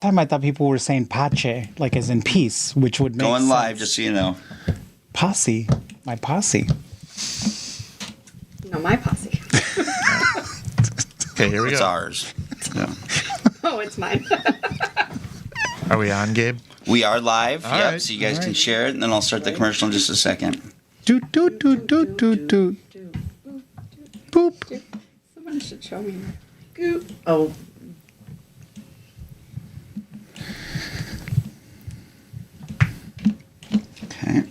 time I thought people were saying pace, like as in peace, which would make Going sense. live, just so you know. posse, my posse. No, my posse. Okay, here we It's go. ours. Yeah. oh, it's mine. Are we on, Gabe? We are live. All yep. right, So you guys all can right. share it, and then I'll start the commercial in just a second. Do do do do do do. Boop. Someone should show me. Goop. Oh. Okay.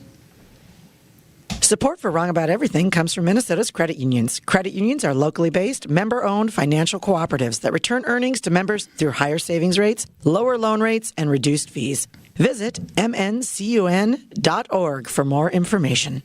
Support for Wrong About Everything comes from Minnesota's credit unions. Credit unions are locally based, member owned financial cooperatives that return earnings to members through higher savings rates, lower loan rates, and reduced fees. Visit mncun.org for more information.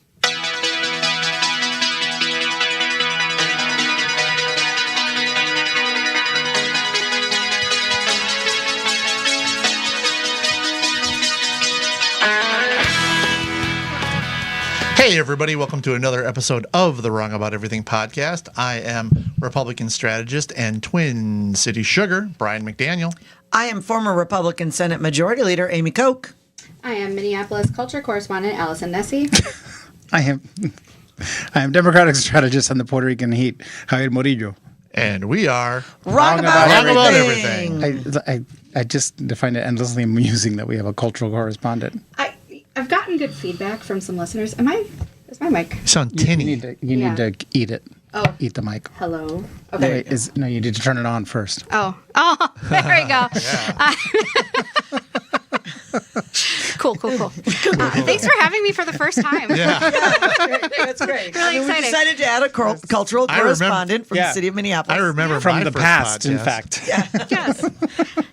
Hey, everybody, welcome to another episode of the Wrong About Everything podcast. I am Republican strategist and Twin City Sugar, Brian McDaniel. I am former Republican Senate Majority Leader Amy Koch. I am Minneapolis culture correspondent Allison Nessie. I am I am Democratic strategist on the Puerto Rican heat, Javier Morillo. And we are Wrong, About Wrong About Everything. Everything. I, I I just find it endlessly amusing that we have a cultural correspondent. I I've gotten good feedback from some listeners. Am I? Is my mic? You sound You tinny. need to you Yeah. need to eat it. Oh. Eat the mic. Hello. No, Okay. wait, is, no, you need to turn it on first. Oh. Oh. There we go. cool. Cool. Cool. Uh, thanks for having me for the first time. Yeah, That's great. Really we exciting. decided to add a cul- cultural I remem- correspondent from Yeah. the city of Minneapolis. I remember From my the first past, in podcast. fact. Yes.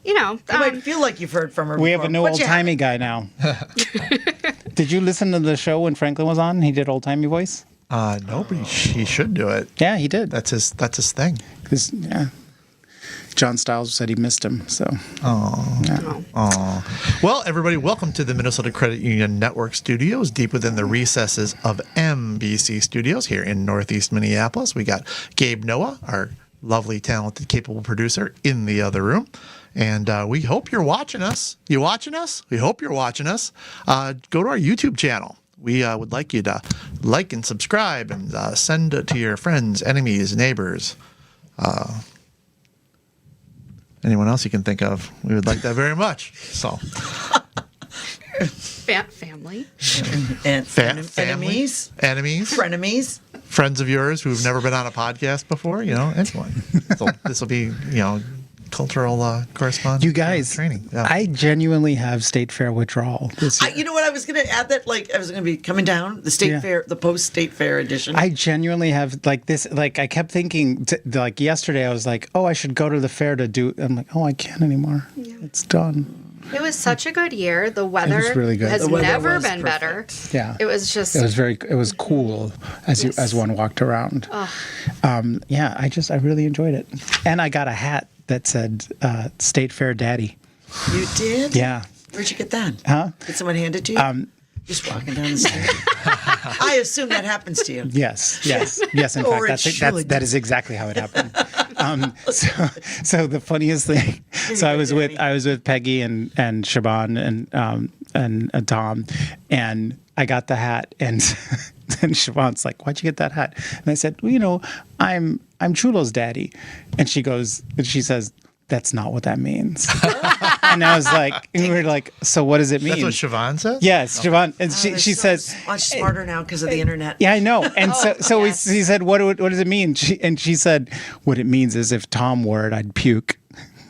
You know. You um, might feel like you've heard from her. We have before, a new but old you haven't. timey guy now. Did you listen to the show when Franklin was on? He did old timey voice. Uh, nobody, he should do it. Yeah, he did. That's his. That's his thing. 'Cause, yeah, John Styles said he missed him. So oh. Well, everybody, welcome to the Minnesota Credit Union Network Studios, deep within the recesses of MBC Studios here in Northeast Minneapolis. We got Gabe Noah, our lovely, talented, capable producer, in the other room. And uh, we hope you're watching us. You watching us? We hope you're watching us. Uh, go to our YouTube channel. We uh, would like you to like and subscribe and uh, send it to your friends, enemies, neighbors. Uh, Anyone else you can think of, we would like that very much. So, Fa- family. And fa- enemies, family, enemies, frenemies. friends of yours who've never been on a podcast before, you know, anyone. So this will be, you know, cultural uh, correspondence. you guys, training. Yeah. I genuinely have state fair withdrawal this I, year. you know what? I was going to add that, like, I was going to be coming down the state Yeah. fair, the post state fair edition. I genuinely have like this. Like I kept thinking, t- like yesterday, I was like, "Oh, I should go to the fair to do." I'm like, "Oh, I can't anymore. It's done." It was such a good year. The weather really good. has The weather never was been better. Yeah. It was just It was very. It was cool as you as one walked around. Um, yeah, I just I really enjoyed it, and I got a hat that said uh, "State Fair Daddy." you did? Yeah, Where'd you get that? Huh? Did someone hand it to you? Um, Just walking down the street. I assume that happens to you. Yes, yes, yes. In Or fact, that's, it that's should. that is exactly how it happened. Um, so, so the funniest thing. So I was with I was with Peggy and and Shaban and um, and uh, Tom, and I got the hat, and and Shaban's like, "Why'd you get that hat?" And I said, "Well, you know, I'm I'm Chulo's daddy," and she goes and she says. That's not what that means. and I was like, and we were like, so what does it mean? That's what Siobhan says? yes, Siobhan. And she, They're she Oh, so says, much smarter now because of the internet. yeah, I know. And so, so Oh, yes. we, he said, what, would- what does it mean? She, and she said, what it means is if Tom were it, I'd puke.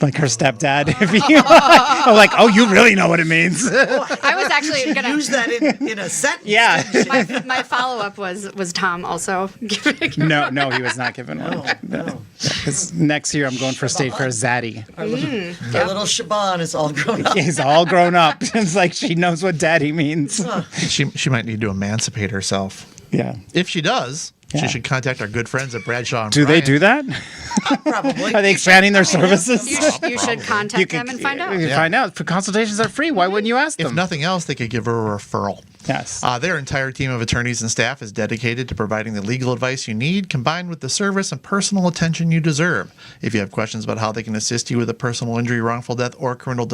Like her stepdad. If you, I'm like, oh, you really know what it means. I was actually gonna Use that in, in a sentence. Yeah. didn't you? my, my follow up was was Tom also giving no, no, he was not given one. no. 'Cause Next year, I'm going for state fair. Zaddy, Our little, our little Shaban is all grown up. he's all grown up. It's like she knows what daddy means. She, she might need to emancipate herself. Yeah. If she does, Yeah. she should contact our good friends at Bradshaw. And Do they Bryant. do that? Probably. Are they expanding their services? you, sh- you should contact them and find out. You can find out. For consultations are free. Why wouldn't you ask If them? nothing else, they could give her a referral. yes. Uh, their entire team of attorneys and staff is dedicated to providing the legal advice you need, combined with the service and personal attention you deserve. If you have questions about how they can assist you with a personal injury, wrongful death, or criminal